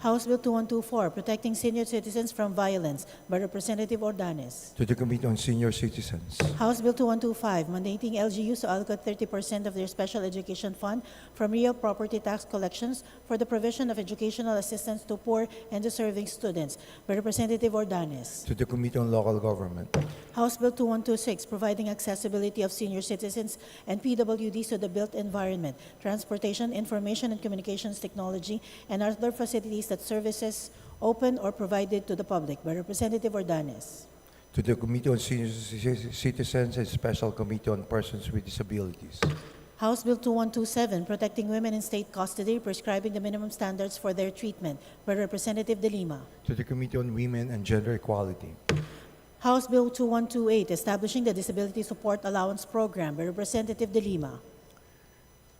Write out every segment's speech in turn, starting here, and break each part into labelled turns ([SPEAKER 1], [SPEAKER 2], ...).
[SPEAKER 1] House Bill 2124, Protecting Senior Citizens from Violence by Representative Ordanes.
[SPEAKER 2] to the Committee on Senior Citizens,
[SPEAKER 1] House Bill 2125, mandating LGUs to allocate 30% of their special education fund from real property tax collections for the provision of educational assistance to poor and deserving students by Representative Ordanes.
[SPEAKER 2] to the Committee on Local Government,
[SPEAKER 1] House Bill 2126, providing accessibility of senior citizens and PWDs to the built environment, transportation, information and communications technology, and other facilities that services open or provided to the public by Representative Ordanes.
[SPEAKER 2] to the Committee on Senior Ci- Citizens and Special Committee on Persons with Disabilities,
[SPEAKER 1] House Bill 2127, Protecting Women in State Custody, Prescribing the Minimum Standards for Their Treatment by Representative De Lima.
[SPEAKER 2] to the Committee on Women and Gender Equality,
[SPEAKER 1] House Bill 2128, Establishing the Disability Support Allowance Program by Representative De Lima.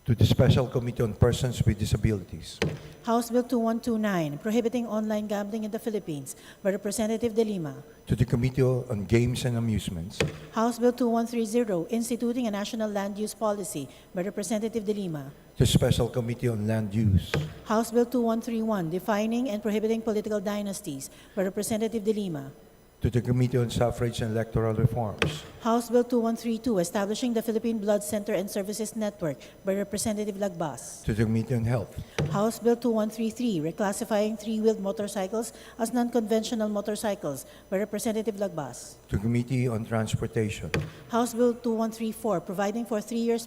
[SPEAKER 2] to the Special Committee on Persons with Disabilities,
[SPEAKER 1] House Bill 2129, Prohibiting Online Gambling in the Philippines by Representative De Lima.
[SPEAKER 2] to the Committee on Games and Amusements,
[SPEAKER 1] House Bill 2130, Instituting a National Land Use Policy by Representative De Lima.
[SPEAKER 2] to the Special Committee on Land Use,
[SPEAKER 1] House Bill 2131, Defining and Prohibiting Political Dynasties by Representative De Lima.
[SPEAKER 2] to the Committee on Suffrage and Electoral Reforms,
[SPEAKER 1] House Bill 2132, Establishing the Philippine Blood Center and Services Network by Representative Lagbas.
[SPEAKER 2] to the Committee on Health,
[SPEAKER 1] House Bill 2133, Reclassifying Three-Wheeled Motorcycles as Non-Conventional Motorcycles by Representative Lagbas.
[SPEAKER 2] to the Committee on Transportation,
[SPEAKER 1] House Bill 2134, Providing for Three-Year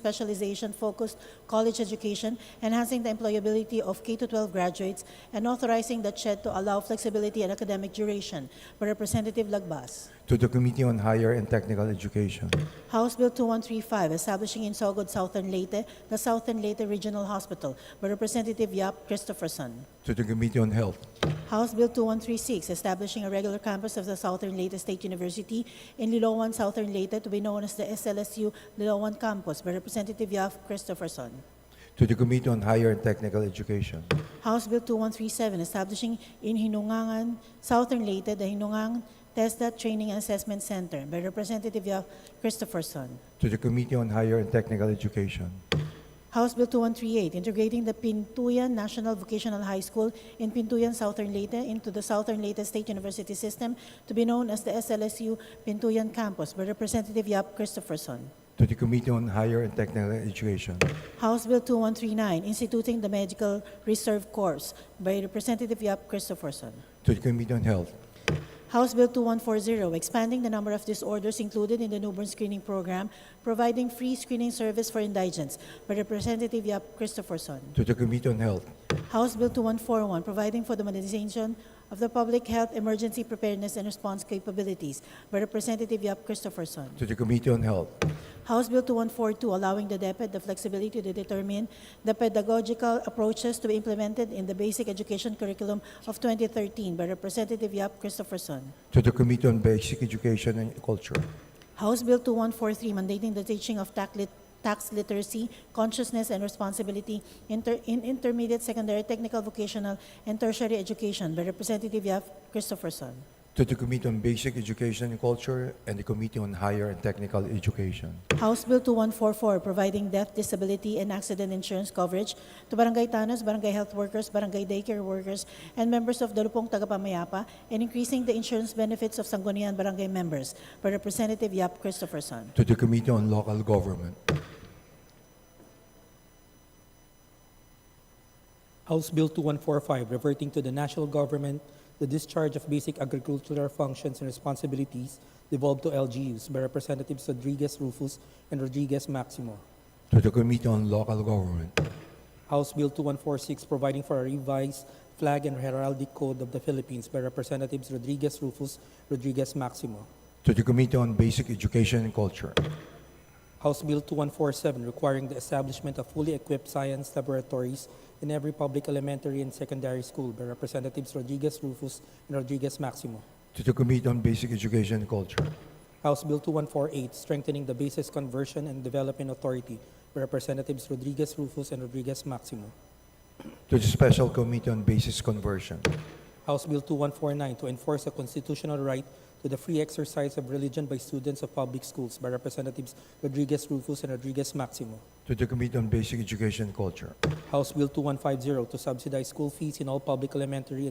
[SPEAKER 1] Specialization-Focused College Education, Enhancing the Employability of K-12 Graduates, and Authorizing the CHED to Allow Flexibility and Academic Duration by Representative Lagbas.
[SPEAKER 2] to the Committee on Higher and Technical Education,
[SPEAKER 1] House Bill 2135, establishing in Sogod, Southern Leyte, the Southern Leyte Regional Hospital by Representative Yap Christopherson.
[SPEAKER 2] to the Committee on Health,
[SPEAKER 1] House Bill 2136, establishing a regular campus of the Southern Leyte State University in Liloan, Southern Leyte, to be known as the SLSU Liloan Campus by Representative Yap Christopherson.
[SPEAKER 2] to the Committee on Higher and Technical Education,
[SPEAKER 1] House Bill 2137, establishing in Hinungangan, Southern Leyte, the Hinungang TESDA Training and Assessment Center by Representative Yap Christopherson.
[SPEAKER 2] to the Committee on Higher and Technical Education,
[SPEAKER 1] House Bill 2138, integrating the Pintuyan National Vocational High School in Pintuyan, Southern Leyte into the Southern Leyte State University System to be known as the SLSU Pintuyan Campus by Representative Yap Christopherson.
[SPEAKER 2] to the Committee on Higher and Technical Education,
[SPEAKER 1] House Bill 2139, instituting the Medical Reserve Corps by Representative Yap Christopherson.
[SPEAKER 2] to the Committee on Health,
[SPEAKER 1] House Bill 2140, expanding the number of disorders included in the newborn screening program, providing free screening service for indigents by Representative Yap Christopherson.
[SPEAKER 2] to the Committee on Health,
[SPEAKER 1] House Bill 2141, providing for the modernization of the public health emergency preparedness and response capabilities by Representative Yap Christopherson.
[SPEAKER 2] to the Committee on Health,
[SPEAKER 1] House Bill 2142, allowing the DepEd the flexibility to determine the pedagogical approaches to be implemented in the basic education curriculum of 2013 by Representative Yap Christopherson.
[SPEAKER 2] to the Committee on Basic Education and Culture,
[SPEAKER 1] House Bill 2143, mandating the teaching of tax lit- tax literacy, consciousness, and responsibility inter- in intermediate, secondary, technical, vocational, and tertiary education by Representative Yap Christopherson.
[SPEAKER 2] to the Committee on Basic Education and Culture, and the Committee on Higher and Technical Education,
[SPEAKER 1] House Bill 2144, providing death, disability, and accident insurance coverage to barangay tanos, barangay health workers, barangay daycare workers, and members of Dalupong Tagapamayapa, and increasing the insurance benefits of Sangguniang barangay members by Representative Yap Christopherson.
[SPEAKER 2] to the Committee on Local Government,
[SPEAKER 3] House Bill 2145, reverting to the national government the discharge of basic agricultural functions and responsibilities devolved to LGUs by Representatives Rodriguez Rufus and Rodriguez Maximo.
[SPEAKER 2] to the Committee on Local Government,
[SPEAKER 3] House Bill 2146, providing for a revised flag and heraldic code of the Philippines by Representatives Rodriguez Rufus, Rodriguez Maximo.
[SPEAKER 2] to the Committee on Basic Education and Culture,
[SPEAKER 3] House Bill 2147, requiring the establishment of fully equipped science laboratories in every public elementary and secondary school by Representatives Rodriguez Rufus and Rodriguez Maximo.
[SPEAKER 2] to the Committee on Basic Education and Culture,
[SPEAKER 3] House Bill 2148, Strengthening the Basis Conversion and Development Authority, by Representatives Rodriguez Rufus and Rodriguez Maximo.
[SPEAKER 2] to the Special Committee on Basis Conversion,
[SPEAKER 3] House Bill 2149, to enforce a constitutional right to the free exercise of religion by students of public schools, by Representatives Rodriguez Rufus and Rodriguez Maximo.
[SPEAKER 2] to the Committee on Basic Education and Culture,
[SPEAKER 3] House Bill 2150, to subsidize school fees in all public elementary and